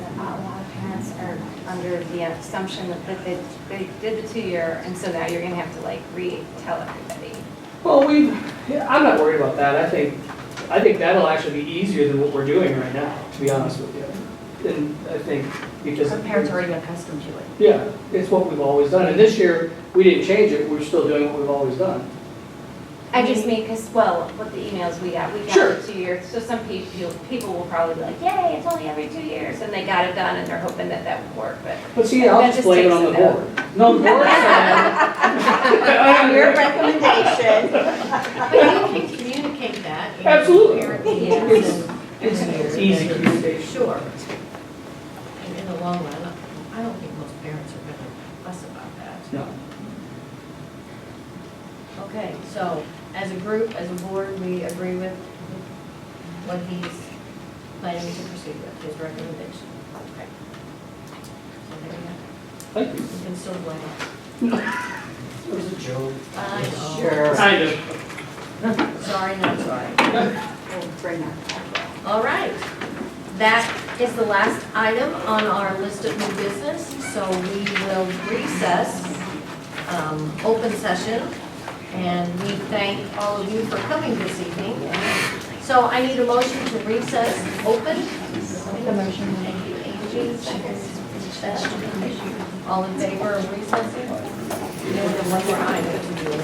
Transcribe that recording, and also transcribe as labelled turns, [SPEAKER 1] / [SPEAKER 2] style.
[SPEAKER 1] under the assumption that that they, they did the two-year, and so now you're gonna have to like retell everybody.
[SPEAKER 2] Well, we, yeah, I'm not worried about that, I think, I think that'll actually be easier than what we're doing right now, to be honest with you. And I think, because.
[SPEAKER 3] Our parents are already accustomed to it.
[SPEAKER 2] Yeah, it's what we've always done, and this year, we didn't change it, we're still doing what we've always done.
[SPEAKER 1] I just mean, because, well, with the emails we got, we
[SPEAKER 2] Sure.
[SPEAKER 1] got the two years, so some people, people will probably be like, yay, it's only every two years, and they got it done, and they're hoping that that would work, but.
[SPEAKER 2] But see, I'll
[SPEAKER 1] That
[SPEAKER 2] just
[SPEAKER 1] just
[SPEAKER 2] blame it
[SPEAKER 1] takes
[SPEAKER 2] on the
[SPEAKER 1] it out.
[SPEAKER 2] board. No, the board's not.
[SPEAKER 4] Your recommendation.
[SPEAKER 3] But you can communicate that. and
[SPEAKER 2] Absolutely.
[SPEAKER 3] parent meetings
[SPEAKER 2] It's-
[SPEAKER 3] and-
[SPEAKER 2] It's
[SPEAKER 3] and
[SPEAKER 2] it's
[SPEAKER 3] years,
[SPEAKER 2] easy
[SPEAKER 3] and-
[SPEAKER 2] communication.
[SPEAKER 3] Sure. And in the long run, I don't think most parents are gonna fuss about that.
[SPEAKER 2] No.
[SPEAKER 3] Okay, so as a group, as a board, we agree with what he's planning to proceed with, his recommendation. Okay. So there you go.
[SPEAKER 2] Thank you.
[SPEAKER 3] You can still blame us.
[SPEAKER 2] It was a joke.
[SPEAKER 3] I know.
[SPEAKER 2] Kind of.
[SPEAKER 3] Sorry, not sorry.
[SPEAKER 4] We'll bring that back.
[SPEAKER 3] All right. That is the last item on our list of new business, so we will recess, um, open session. And we thank all of you for coming this evening. So I need a motion to recess open. Make a motion. Thank you, Angie. Second, Beth. All in favor of recessing? There's one more item to do.